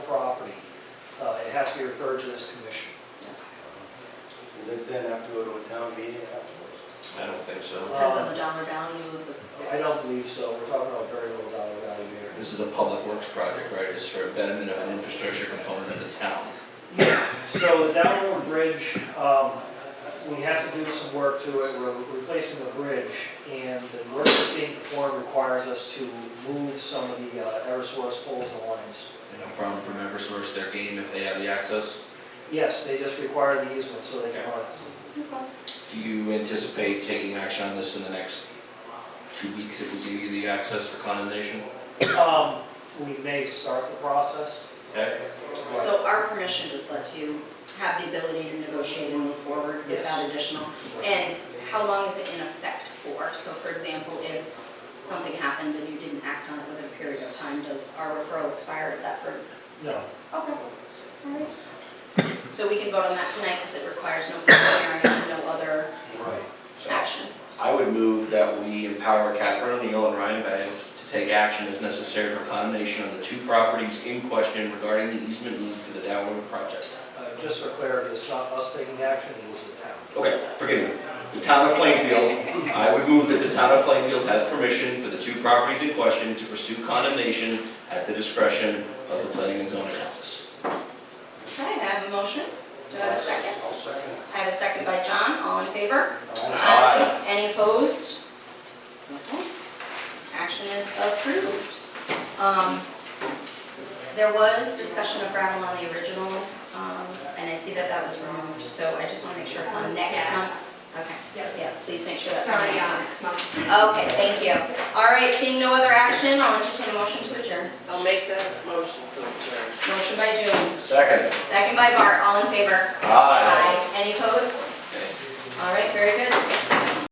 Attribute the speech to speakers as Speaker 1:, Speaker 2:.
Speaker 1: uh, has to be referred to this commission.
Speaker 2: Does it then have to go to a town meeting afterwards?
Speaker 3: I don't think so.
Speaker 4: Depends on the dollar value of the.
Speaker 2: Um, I don't believe so, we're talking about very little dollar value here.
Speaker 3: This is a public works project, right? It's for betterment of an infrastructure component of the town.
Speaker 1: So the downward bridge, um, we have to do some work to it, we're replacing the bridge, and the work that's being performed requires us to move some of the uh, Eversource poles and lines.
Speaker 3: No problem from Eversource, their game if they have the access.
Speaker 1: Yes, they just require the easement so they can run.
Speaker 3: Do you anticipate taking action on this in the next two weeks if we give you the access for condemnation?
Speaker 1: Um, We may start the process.
Speaker 3: Okay?
Speaker 4: So our permission just lets you have the ability to negotiate and move forward without additional. And how long is it in effect for? So for example, if something happened and you didn't act on it within a period of time, does our referral expire? Is that for?
Speaker 1: No,
Speaker 4: Okay. So we can vote on that tonight because it requires no public hearing and no other
Speaker 2: Right.
Speaker 4: action.
Speaker 3: I would move that we empower Catherine O'Neill and Ryan Bags to take action as necessary for condemnation on the two properties in question regarding the easement need for the downward project.
Speaker 1: uh, just for clarity, it's not us taking action, it was the town.
Speaker 3: Okay, forgive me. The town of Plainfield, I would move that the town of Plainfield has permission for the two properties in question to pursue condemnation at the discretion of the planning and zoning office.
Speaker 4: Okay, I have a motion. Do I have a second?
Speaker 2: I'll second.
Speaker 4: I have a second by John. All in favor?
Speaker 2: Aye.
Speaker 3: Aye.
Speaker 4: Any opposed? Okay. Action is approved. Um, There was discussion of gravel on the original, um, and I see that that was removed, so I just want to make sure it's on next
Speaker 5: Yeah.
Speaker 4: month's. Okay,
Speaker 5: Yep.
Speaker 4: yeah, please make sure that's on
Speaker 5: Sorry,
Speaker 4: next
Speaker 5: yeah,
Speaker 4: month's.
Speaker 5: it's not.
Speaker 4: Okay, thank you. All right, seeing no other action, I'll entertain a motion to adjourn.
Speaker 6: I'll make that motion to adjourn.
Speaker 4: Motion by June,
Speaker 3: Second.
Speaker 4: second by Bart, all in favor?
Speaker 3: Aye.
Speaker 4: Any opposed?
Speaker 3: Okay.
Speaker 4: All right, very good.